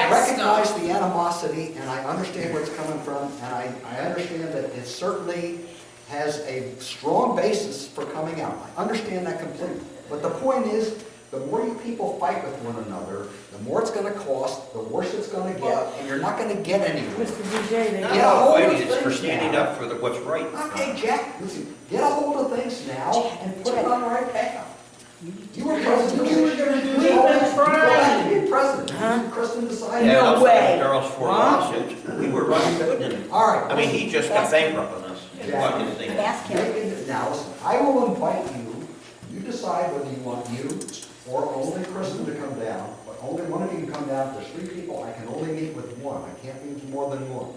recognize the animosity, and I understand where it's coming from, and I, I understand that it certainly has a strong basis for coming out. I understand that completely. But the point is, the more you people fight with one another, the more it's gonna cost, the worse it's gonna get, and you're not gonna get anywhere. Mr. DJ, they No. got Get a hold No, of wait, it's for things standing now. up for the, what's right. Okay, Jack, listen, get a hold of things now and put it on the right path. You were president, you were gonna do We've been trying. You were president, Kristen decided. Yeah, No that's way. Daryl's four lawsuits, we were running good in it. All right. I mean, he just got bankrupt on us, is what his thing is. Ask him. Make- Now, listen, I will invite you, you decide whether you want you or only Kristen to come down, but only one of you can come down, if there's three people, I can only meet with one, I can't meet with more than one.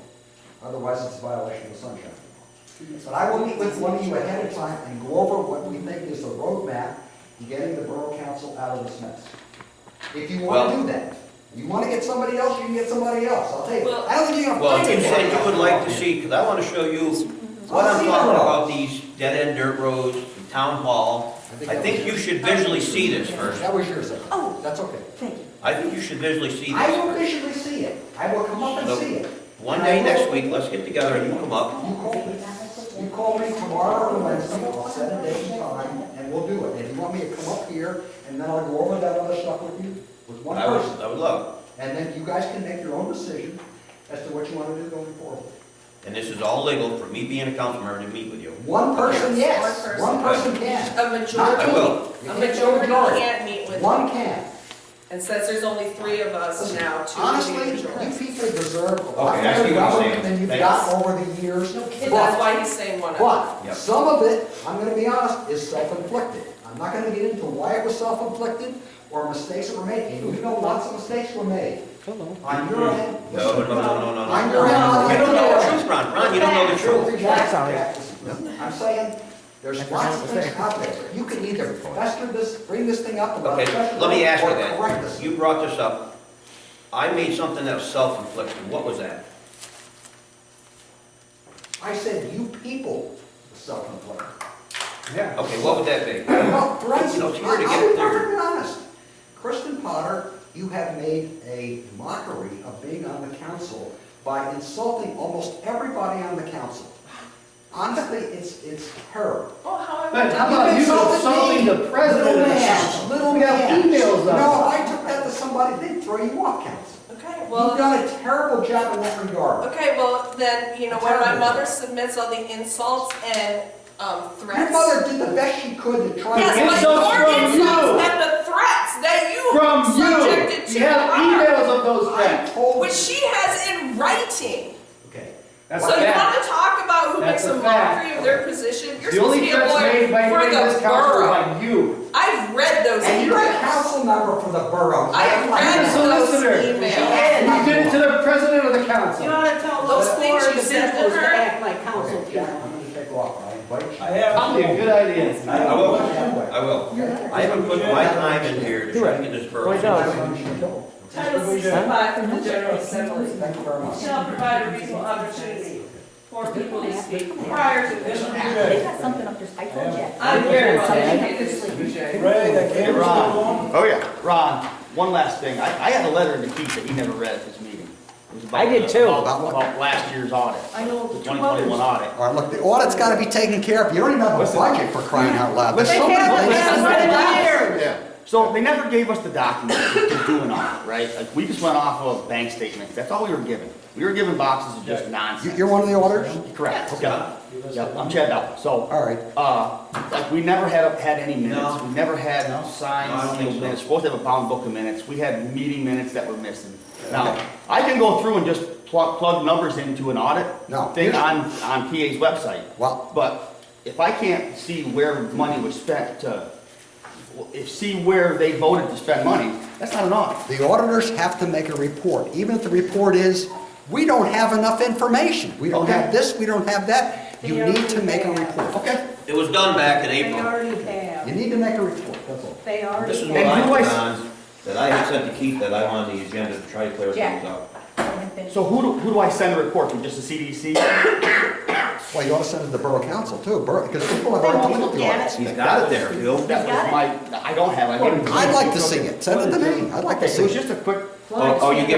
Otherwise, it's a violation of the sunshine law. But I will meet with one of you ahead of time and go over what we think is the roadmap to getting the borough council out of this mess. If you wanna Well- do that, you wanna get somebody else, you can get somebody else, I'll tell you, Well- I don't think you're gonna Well, find you anybody. said you would like to else. see, because I want to show you what I'm talking about, these dead-end dirt roads, the town hall. I think you should visually see this first. That was yours, Evan. Oh. That's okay. Thank you. I think you should visually see I will this. visually see it. I will come up and Nope. see it. One day next week, let's get together and you come up. You call me, you call me tomorrow or Wednesday, I'll set a date and time, and we'll do it. If you want me to come up here, and then I'll go over that other stuff with you, with one I person, would, I would love. and then you guys can make your own decision as to what you want to do going forward. it. And this is all legal for me being a council member to meet with you. One person, yes, One one person can. A Not I two. majority, will. You a can't get majority can't meet with, One can. and since there's only three of us Listen, now, two would Honestly, be you the majority. people deserve a lot Okay, I see more what you're government saying. than you've Thanks. gotten over the years. And But- that's why he's saying one of us. But Yep. some of it, I'm gonna be honest, is self-inflicted. I'm not gonna get into why it was self-inflicted or mistakes that were made. And you know, lots of mistakes were made. On your end. Mm-hmm. No, no, no, no, no, no. On your end. on You the don't know the other truth, Ron. Ron, you don't know the truth. end. That's all right. Jack, listen, I'm saying, there's lots of things out there. You can either fester this, bring this thing up about Okay, special. let me ask you Or correct this. that. You brought this up. I made something that was self-inflicted. What was that? I said, you people self-inflicted. Yeah. Okay, what would that be? Well, for instance, No, it's hard to I- get I'll be there. perfectly honest. Kristen Potter, you have made a mockery of being on the council by insulting almost everybody on the council. Honestly, it's, it's terrible. Oh, how But I, how about you insulted insulting me, the president of the little man, council? Little We have man. emails of You know, if it. I took that to somebody, they'd throw you off council. okay, You've well, done a terrible job in that regard. okay, well, then, you know, when my mother submits all the insults and um, Your threats. mother did the best she could to try to. Yes, Insults but your from you. insults and the threats that you From subjected to you, you have her, emails of those I things. told. which she has in writing. Okay. That's a So you fact. wanna talk about who makes That's a a fact. mockery of their position? You're The supposed to only be a threats lawyer made by for anybody in the this council are borough. by you. I've read those And you're a emails. council member for the borough. I have read You're a those solicitor. emails. You did it to the president of the You council. ought to tell Those those things four you said to individuals to her. act like council Okay, yeah, I'm people. gonna take off, I invite you. I have. Probably a good idea. I I will, I will. Yeah. I haven't put my time in here to try to get this borough. Right now. Title sixty-five from the General Assembly Thank you very much. shall provide a reasonable opportunity for people to speak prior to this act. They got something up their, I told you. I'm very well educated, Mr. J. Ron, Oh, yeah. Ron, one last thing. I, I had a letter to Keith that he never read at this meeting. It was about I did the- too. About about last year's audit. I know. The 2021 audit. All right, look, the audit's gotta be taken care of. You don't even have a budget for crying out loud. There's Listen. so many They can't things. put that- Yeah. So they never gave us the document to do an audit, right? Like, we just went off of bank statements. That's all we were given. We were given boxes of just You- nonsense. You're one of the auditors? Correct. Yep. Yep, I'm Chad Bell. So, All right. uh, like, we never had, had any minutes. No. We never had No. No, I don't signed think sealed so. minutes. Supposed to have a bound book of minutes. We had meeting minutes that were missing. Now, I can go through and just plug, plug numbers into an audit No. thing on, on PA's website. Well- But if I can't see where money was spent to, if, see where they voted to spend money, that's not an audit. The auditors have to make a report, even if the report is, we don't have enough information. We don't have this, we don't have that. You need to make a report. Okay. It was done back in They April. already You have. need to make a report, that's all. They already This is have. what And I who I put s- on, that I had sent to Keith that I wanted the agenda to try to clear things Jack. up. So who do, who do I send a report to? Just the CDC? Well, you ought to send it to the borough council too, borough, because people have They already won't looked at the look at audits. He's got it there, Bill. That Got was it. my, I don't have, I gave it. I'd like to see it. Send it to me. I'd like to Okay, see was it. just a quick Oh, oh, you